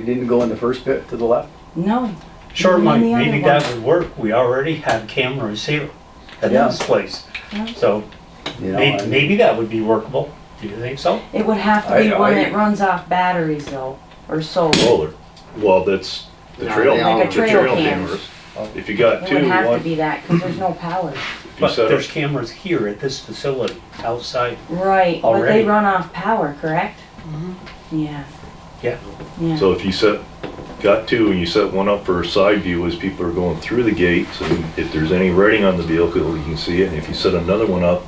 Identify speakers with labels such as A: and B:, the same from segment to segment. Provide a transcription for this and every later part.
A: We didn't go in the first pit to the left?
B: No.
C: Sure,
B: Even
C: Mike,
B: on the other one.
C: maybe that would work. We already have cameras here at
A: Yeah.
C: this place.
B: Yeah.
C: So
A: You know,
C: maybe,
A: I-
C: maybe that would be workable. Do you think so?
B: It would have to be
A: I-
B: one
A: I-
B: that runs off batteries though, or solar.
D: roller. Well, that's the trail,
E: they all-
D: the
B: Like a trail
D: trail
B: cam.
D: cameras. If you got
B: It
D: two,
B: would have to
D: one,
B: be that, because there's no power.
D: if you
C: But
D: set
C: there's
D: up,
C: cameras here at this facility outside.
B: Right, but they
C: Already.
B: run off power, correct? Yeah.
C: Yeah.
B: Yeah,
D: so if you set, got two and you set one up for a side view as people are going through the gates, and if there's any writing on the vehicle, you can see it, and if you set another one up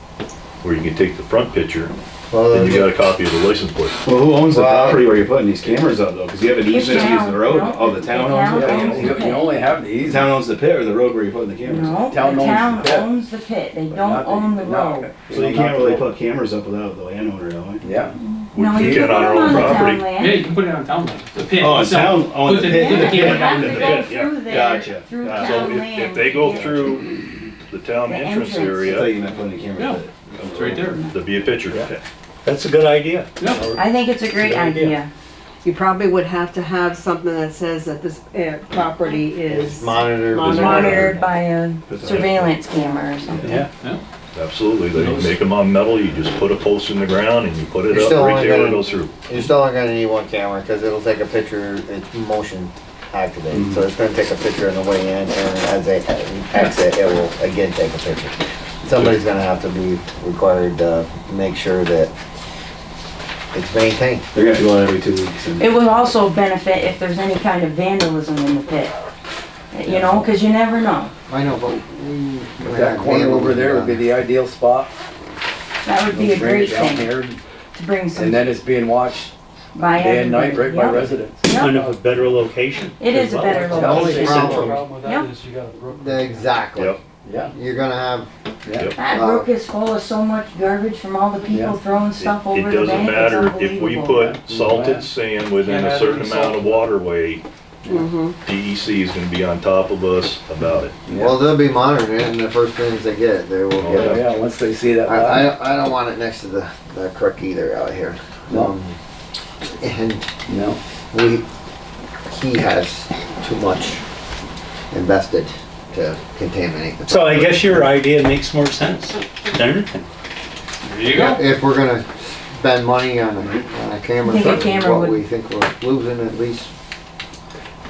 D: where you can take the front picture,
F: Well,
D: then you got a copy of the license plate.
G: Well, who owns the
F: Well, I-
G: property where you're putting these cameras up though? Because you have an
B: The
G: easement to use
B: town,
G: the road.
B: no?
G: Oh, the town
B: The
G: owns
B: town
A: Yeah,
B: owns
G: it?
A: you you only have
G: The
A: these.
G: town owns the pit or the road where you're putting the cameras? up?
B: no, the
A: Town owns
B: town
A: the pit.
B: owns the pit, they
A: but
B: don't
A: not
B: own the
A: not-
B: road.
G: So you can't really put cameras up without the landowner, though, eh?
A: Yeah.
D: We
B: No, you
D: can't
B: can put
D: on our
B: them
D: own
B: on the
D: property.
B: town
E: Yeah,
B: land.
E: you can put it on town, like, the pit.
G: Oh, it's
E: itself.
G: town, oh,
E: Put
G: the pit.
E: Put the
G: Yeah,
E: camera
B: They
E: down
B: have
G: I'm
E: the
B: to
G: the
B: go
E: pit.
G: pit, yeah.
B: through
G: Gotcha,
B: there, through
G: gotcha.
D: So
B: town
D: if,
B: land.
D: if they go
B: to get-
D: through the town
B: The entrance.
D: entrance
G: I thought
D: area,
G: you meant putting the camera
E: No.
G: up.
E: It's right there.
D: there'd be a picture.
A: Yeah.
C: That's a good idea.
E: Yeah.
B: I think it's a great
C: Good idea.
B: idea.
H: You probably would have to have something that says that this uh, property is
F: monitor.
B: Monitored by a surveillance camera or something.
C: Yeah.
D: Absolutely, they can make them on metal, you just put a post in the ground and you put it
F: You're
D: up
F: still
D: right
F: only
D: there where it
F: gonna-
D: goes through.
F: You're still only gonna need one camera, because it'll take a picture, it's motion
A: Mm-hmm.
F: activated, so it's gonna take a picture on the way in, and as they exit, it will again take a picture. Somebody's gonna have to be required to make sure that it's maintained.
G: They're gonna have to go out every two weeks and.
B: It would also benefit if there's any kind of vandalism in the pit. You know, because you never know.
F: I know, but we.
A: But that corner over there would be the ideal spot.
B: That would be a
A: Bring it
B: great
A: down
B: thing
A: here,
B: to bring some
A: And then it's being watched
B: by
A: day and night right
B: everybody.
A: by
B: Yep.
A: residents.
C: Kind of a better location.
B: It
C: as
B: is a
C: well.
B: better
F: The only
B: location.
F: problem,
I: with
B: Yeah.
I: that is you got a brook.
F: exactly,
D: Yep.
A: Yeah,
F: you're gonna have,
A: yeah.
B: That
F: Wow.
B: brook is full of so much garbage from all the people
A: uh, Yeah.
B: throwing stuff
D: It
B: over
D: it
B: the
D: doesn't
B: bank.
D: matter if we put
A: Yeah.
D: salted sand within
I: Can't
D: a
I: add
D: certain
I: any
D: amount
I: salt.
D: of waterway,
H: Mhm.
D: DEC is gonna be on top of us about it.
F: well, they'll be monitoring it, and the first things they get, they will
D: Oh,
F: get
A: Oh,
F: it.
A: Yeah, once they see that.
F: I, I, I don't want it next to the, the crook either out here.
A: No.
F: Um, And
A: No,
F: we, he has too much invested to contaminate the.
C: So I guess your idea makes more sense than anything.
E: There you go.
F: If we're gonna spend money on a, on a camera,
B: Think a
F: for
B: camera
F: what
B: would-
F: we think we're losing at least,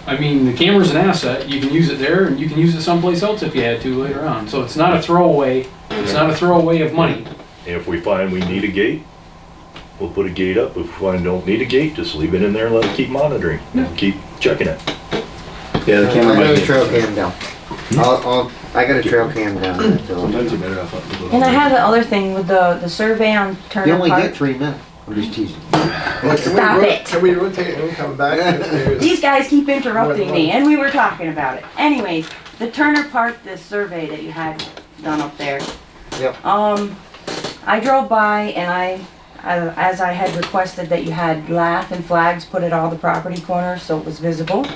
E: I mean, the camera's an asset. You can use it there and you can use it someplace else if you had to later on. So it's not a throwaway, it's not a throwaway of money.
D: If we find we need a gate, we'll put a gate up. If we find don't need a gate, just leave it in there and let it keep monitoring, keep checking it.
G: Yeah, the
F: I
G: camera
F: got
G: might
F: a
G: get.
F: trail cam down. I'll, I'll, I got a trail cam down there, so.
G: Sometimes you're better off. up to the-
B: And I had the other thing with the, the survey on
F: You
B: Turner
F: only get
B: Park.
F: three minutes, I'm just teasing.
B: Stop it.
I: Can we rotate and come back if there's?
B: These guys keep interrupting me, and we were talking about it. Anyways, the Turner Park, this survey that you had done up there.
F: Yep.
B: Um, I drove by and I, I- as I had requested that you had lath and flags put at all the property corners so it was visible.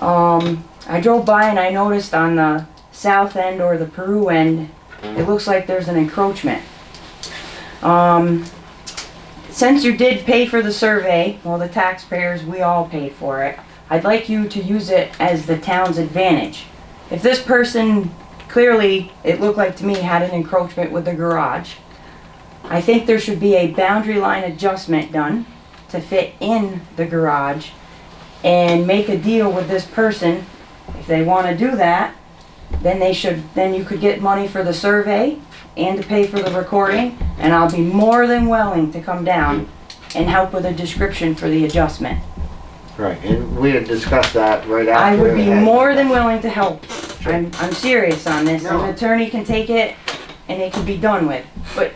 B: Um, I drove by and I noticed on the south end or the Peru end, it looks like there's an encroachment. Um, since you did pay for the survey, well, the taxpayers, we all paid for it, I'd like you to use it as the town's advantage. If this person clearly, it looked like to me, had an encroachment with the garage, I think there should be a boundary line adjustment done to fit in the garage and make a deal with this person. If they want to do that, then they should, then you could get money for the survey and to pay for the recording, and I'll be more than willing to come down and help with a description for the adjustment.
F: Right. And we had discussed that right after.
B: I would be
F: it had-
B: more than willing to help. I'm, I'm serious on this. An
F: No.
B: attorney can take it and it can be done with. But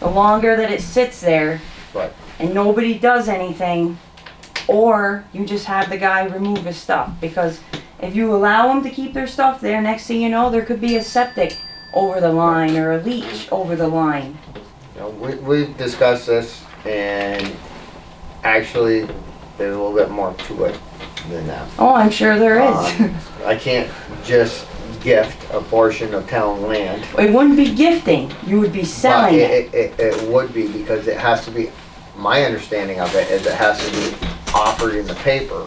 B: the longer that it sits there
F: Right.
B: and nobody does anything, or you just have the guy remove his stuff, because if you allow them to keep their stuff there, next thing you know, there could be a septic over the line or a leach over the line.
F: You know, we, we've discussed this and actually there's a little bit more to it than that.
B: Oh, I'm sure there is.
F: Um, I can't just gift a portion of town land.
B: It wouldn't be gifting, you would be
F: But
B: selling it.
F: it, it, it would be because it has to be, my understanding of it is it has to be offered in the paper